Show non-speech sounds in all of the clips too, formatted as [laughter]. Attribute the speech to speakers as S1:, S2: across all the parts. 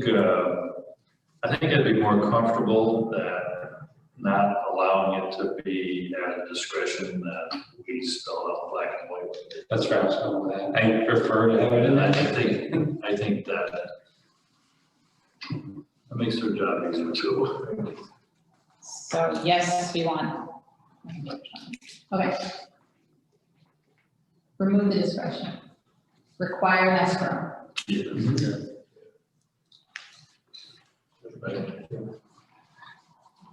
S1: think, uh, I think I'd be more comfortable that not allowing it to be at discretion that we spell out black and white.
S2: That's where I was going with that. I prefer to have it in
S1: And I
S2: that.
S1: think, I think that that makes their job easier too.
S3: So yes, we want. Okay. Remove the discretion. Require an escrow.
S1: Uh, Yeah.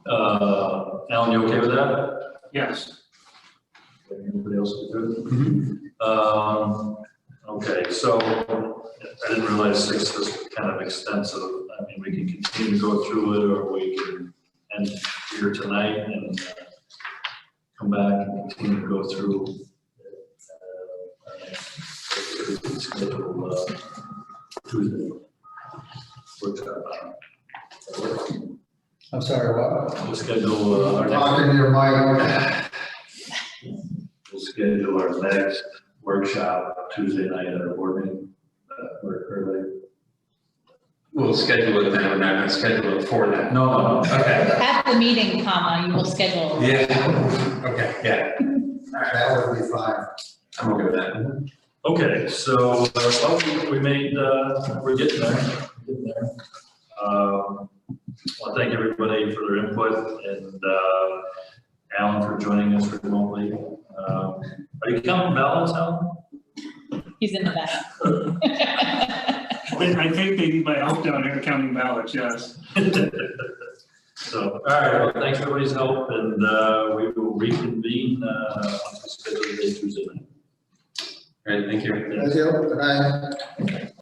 S1: Uh, Alan, you okay with that?
S4: Yes.
S1: Anybody else good? Um, okay, so I didn't realize six was kind of extensive. I mean, we can continue to go through it or we can end here tonight and uh, come back and continue to go through. uh, uh, schedule, uh, Tuesday. Workshop, uh,
S5: I'm sorry, what?
S1: We'll schedule uh, our next.
S5: Talking to your mic.
S1: We'll schedule our next workshop Tuesday night at our board meeting, uh, or early.
S2: We'll schedule it then, we're not gonna schedule it for that.
S1: No, no, no.
S2: Okay.
S3: At the meeting, comma, you will schedule.
S2: Yeah, okay, yeah,
S5: That would be fine.
S2: I'm okay with that.
S1: Okay, so, uh, well, we made, uh, we're getting there, we're getting there. Um, well, thank everybody for their input and, uh, Alan for joining us remotely. Um, are you counting ballots, Alan?
S3: He's in the back. [laughs]
S4: I I think they need my help down here counting ballots, yes.
S1: [laughs] So, all right, well, thanks for everybody's help and, uh, we will reconvene, uh, on the schedule day Tuesday night.
S2: All right, thank you.
S5: Thank you. Good night.